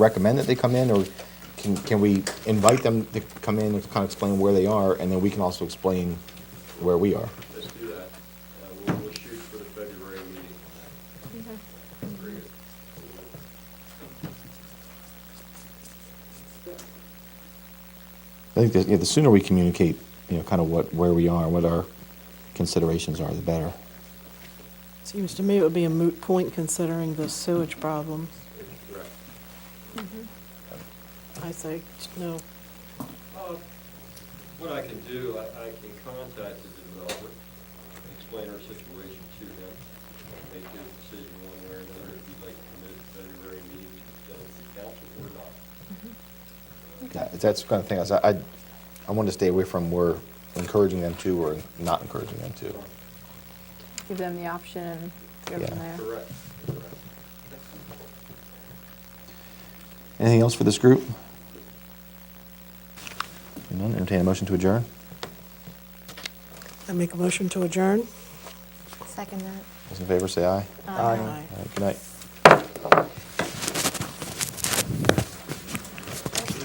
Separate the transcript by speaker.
Speaker 1: recommend that they come in, or can, can we invite them to come in and kind of explain where they are, and then we can also explain where we are?
Speaker 2: Let's do that. Uh, We'll, we'll shoot for the February meeting. Very good.
Speaker 1: I think that, yeah, the sooner we communicate, you know, kind of what, where we are, what our considerations are, the better.
Speaker 3: Seems to me it would be a moot point considering the sewage problem.
Speaker 2: Correct.
Speaker 4: Mm-hmm.
Speaker 3: I say, no.
Speaker 2: Uh, What I can do, I, I can contact the developer, explain our situation to him, make his decision one way or another, if he'd like to commit to February meeting to the Genesee Council or not.
Speaker 1: Yeah, That's the kind of thing, I was- I, I want to stay away from we're encouraging them to or not encouraging them to.
Speaker 4: Give them the option and go from
Speaker 1: Yeah.
Speaker 4: there.
Speaker 2: Correct, correct.
Speaker 1: Anything else for this group? None, entertain a motion to adjourn?
Speaker 3: I make a motion to adjourn?
Speaker 4: Second that.
Speaker 1: Those in favor, say aye.
Speaker 4: Aye.
Speaker 1: All right, Good night.